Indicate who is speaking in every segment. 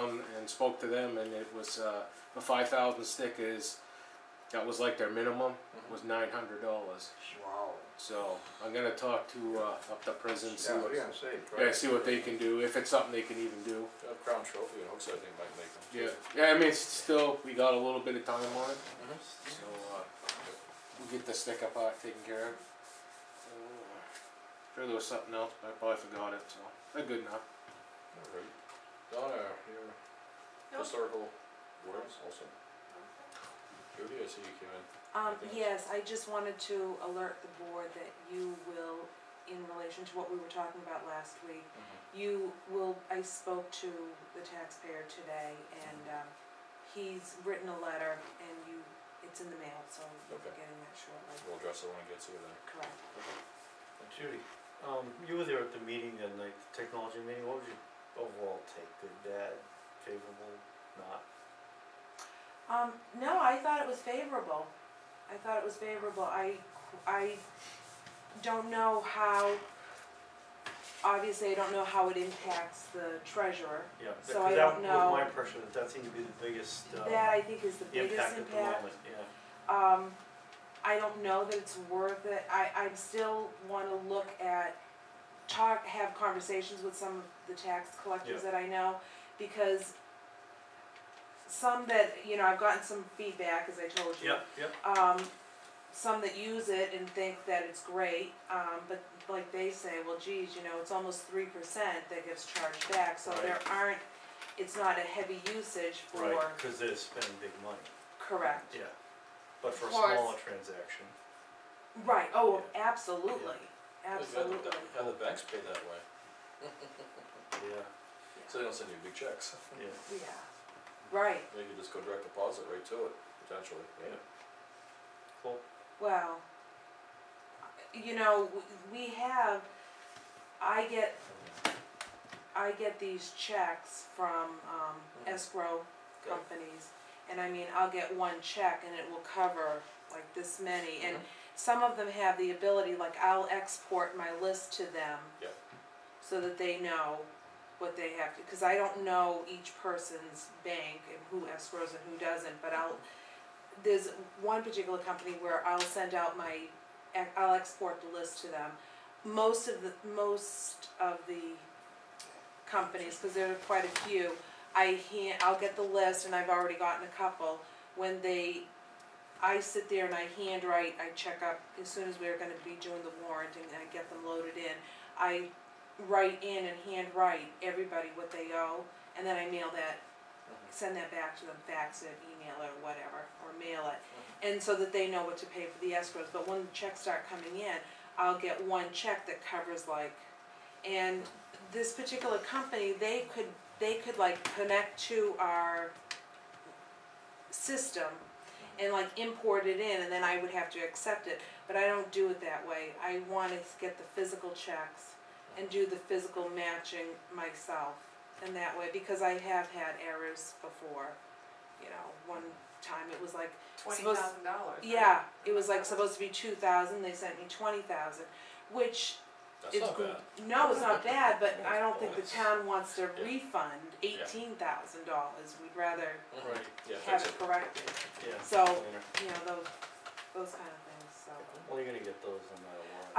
Speaker 1: and spoke to them, and it was uh, the five thousand stickers. That was like their minimum was nine hundred dollars.
Speaker 2: Wow.
Speaker 1: So I'm gonna talk to uh, up the prison, see
Speaker 2: Yeah,
Speaker 1: what
Speaker 2: we gotta see.
Speaker 1: yeah, see what they can do if it's something they can even do.
Speaker 3: A crown trophy, you know, so I think might make them.
Speaker 1: Yeah, yeah. I mean, it's still we got a little bit of time on it, so uh, we'll get the sticker part taken care of. Uh, sure, there was something else, but I probably forgot it. So they're good enough.
Speaker 3: Alright. Donna, your historical words also. Judy, I see you came in.
Speaker 4: Um,
Speaker 3: Okay.
Speaker 4: yes, I just wanted to alert the board that you will, in relation to what we were talking about last week,
Speaker 1: Mm-hmm.
Speaker 4: you will, I spoke to the taxpayer today and, um, he's written a letter and you, it's in the mail, so you'll be
Speaker 3: Okay.
Speaker 4: getting that shortly,
Speaker 3: We'll address it when it gets here then.
Speaker 4: correct.
Speaker 5: Judy, um, you were there at the meeting that night, the technology meeting, what was your overall take, good, bad, favorable, not?
Speaker 4: Um, no, I thought it was favorable. I thought it was favorable. I, I don't know how, obviously, I don't know how it impacts the treasurer.
Speaker 5: Yeah,
Speaker 4: So
Speaker 5: because
Speaker 4: I
Speaker 5: that
Speaker 4: don't
Speaker 5: was my
Speaker 4: know.
Speaker 5: impression, that that seemed to be the biggest, uh,
Speaker 4: That I think is the biggest
Speaker 5: impact at the
Speaker 4: impact.
Speaker 5: moment, yeah.
Speaker 4: Um, I don't know that it's worth it. I, I still wanna look at, talk, have conversations with some of the tax collectors that I know, because some that, you know, I've gotten some feedback, as I told you.
Speaker 5: Yep, yep,
Speaker 4: um, some that use it and think that it's great, um, but like they say, well, geez, you know, it's almost three percent that gets charged back, so
Speaker 5: Right.
Speaker 4: there aren't, it's not a heavy usage
Speaker 5: right,
Speaker 4: for,
Speaker 5: cause they're spending big money,
Speaker 4: correct.
Speaker 5: yeah, but for a
Speaker 4: Of course.
Speaker 5: smaller transaction,
Speaker 4: Right, oh, absolutely,
Speaker 3: Well, you
Speaker 4: absolutely,
Speaker 3: had the- Had the banks pay that way,
Speaker 5: yeah,
Speaker 3: so they don't send you big checks.
Speaker 5: yeah,
Speaker 4: yeah, right,
Speaker 3: They could just go direct deposit right to it, potentially, right?
Speaker 5: cool,
Speaker 4: well, you know, w- we have, I get, I get these checks from, um,
Speaker 3: Mhm.
Speaker 4: escrow
Speaker 3: Okay.
Speaker 4: companies. And I mean, I'll get one check and it will cover like this many, and some of them have the ability, like I'll export my list to them.
Speaker 3: Yep.
Speaker 4: So that they know what they have to, cause I don't know each person's bank and who escrows and who doesn't, but I'll, there's one particular company where I'll send out my, I'll export the list to them. Most of the, most of the companies, cause there are quite a few, I hand, I'll get the list, and I've already gotten a couple, when they, I sit there and I handwrite, I check up, as soon as we're gonna be doing the warrant and I get them loaded in, I write in and handwrite everybody what they owe, and then I mail that, send that back to them, fax it, email it, or whatever, or mail it. And so that they know what to pay for the escrows, but when the checks start coming in, I'll get one check that covers like, and this particular company, they could, they could like connect to our system and like import it in, and then I would have to accept it, but I don't do it that way. I wanna get the physical checks and do the physical matching myself in that way, because I have had errors before. You know, one time it was like
Speaker 6: Twenty
Speaker 4: Suppose-
Speaker 6: thousand dollars.
Speaker 4: yeah, it was like supposed to be two thousand, they sent me twenty thousand, which
Speaker 3: That's
Speaker 4: it's,
Speaker 3: not
Speaker 4: gr-
Speaker 3: bad.
Speaker 4: no, it's not bad, but I don't think the
Speaker 3: Bonus.
Speaker 4: town wants to
Speaker 3: Yeah.
Speaker 4: refund eighteen thousand dollars, we'd rather
Speaker 3: Mhm.
Speaker 5: Right.
Speaker 3: Yeah,
Speaker 4: have
Speaker 3: fix
Speaker 4: it
Speaker 3: it.
Speaker 4: corrected,
Speaker 5: yeah.
Speaker 4: So-
Speaker 5: Later.
Speaker 4: you know, those, those kind of things, so.
Speaker 5: Well, you're gonna get those no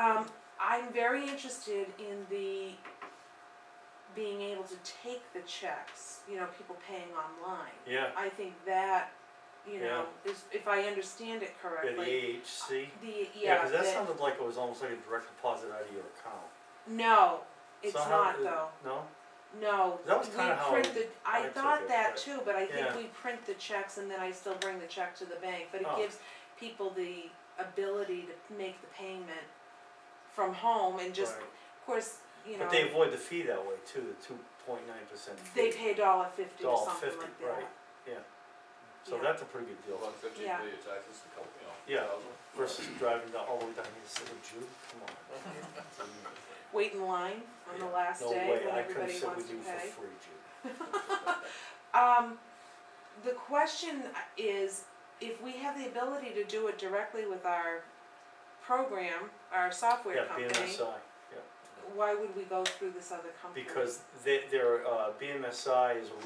Speaker 5: matter what.
Speaker 4: Um, I'm very interested in the, being able to take the checks, you know, people paying online.
Speaker 5: Yeah,
Speaker 4: I think that, you know, is, if I understand it
Speaker 5: yeah, the
Speaker 4: correctly,
Speaker 5: AHC,
Speaker 4: the,
Speaker 5: yeah,
Speaker 4: yeah,
Speaker 5: cause that
Speaker 4: that-
Speaker 5: sounded like it was almost like a direct deposit out of your account.
Speaker 4: no, it's
Speaker 5: Somehow
Speaker 4: not
Speaker 5: it-
Speaker 4: though.
Speaker 5: No?
Speaker 4: No,
Speaker 5: That was kinda how
Speaker 4: we print the, I
Speaker 5: I took
Speaker 4: thought
Speaker 5: it,
Speaker 4: that
Speaker 5: but-
Speaker 4: too, but I think
Speaker 5: Yeah.
Speaker 4: we print the checks and then I still bring the check to the bank, but it
Speaker 5: Oh.
Speaker 4: gives people the ability to make the payment from home and just,
Speaker 5: Right.
Speaker 4: of course, you know,
Speaker 5: But they avoid the fee that way too, the two point nine percent
Speaker 4: they
Speaker 5: fee,
Speaker 4: pay a dollar fifty or
Speaker 5: Dollar
Speaker 4: something
Speaker 5: 50,
Speaker 4: like that.
Speaker 5: right. so
Speaker 4: yeah.
Speaker 5: that's a pretty good deal.
Speaker 3: One fifty, pay
Speaker 4: Yeah.
Speaker 3: your taxes, a couple, you know.
Speaker 5: Yeah.
Speaker 3: thousand.
Speaker 5: Versus driving down all the oh, way down here to Silver Jew, come on.
Speaker 4: Wait in line on the last
Speaker 5: No
Speaker 4: day
Speaker 5: way,
Speaker 4: when
Speaker 5: I couldn't
Speaker 4: everybody
Speaker 5: sit
Speaker 4: wants
Speaker 5: with
Speaker 4: to
Speaker 5: you for
Speaker 4: pay.
Speaker 5: free, Jude.
Speaker 4: Um, the question is, if we have the ability to do it directly with our program, our software company.
Speaker 5: Yeah, BMSI,
Speaker 4: why would we go through this other company?
Speaker 5: because they, their, uh, BMSI is a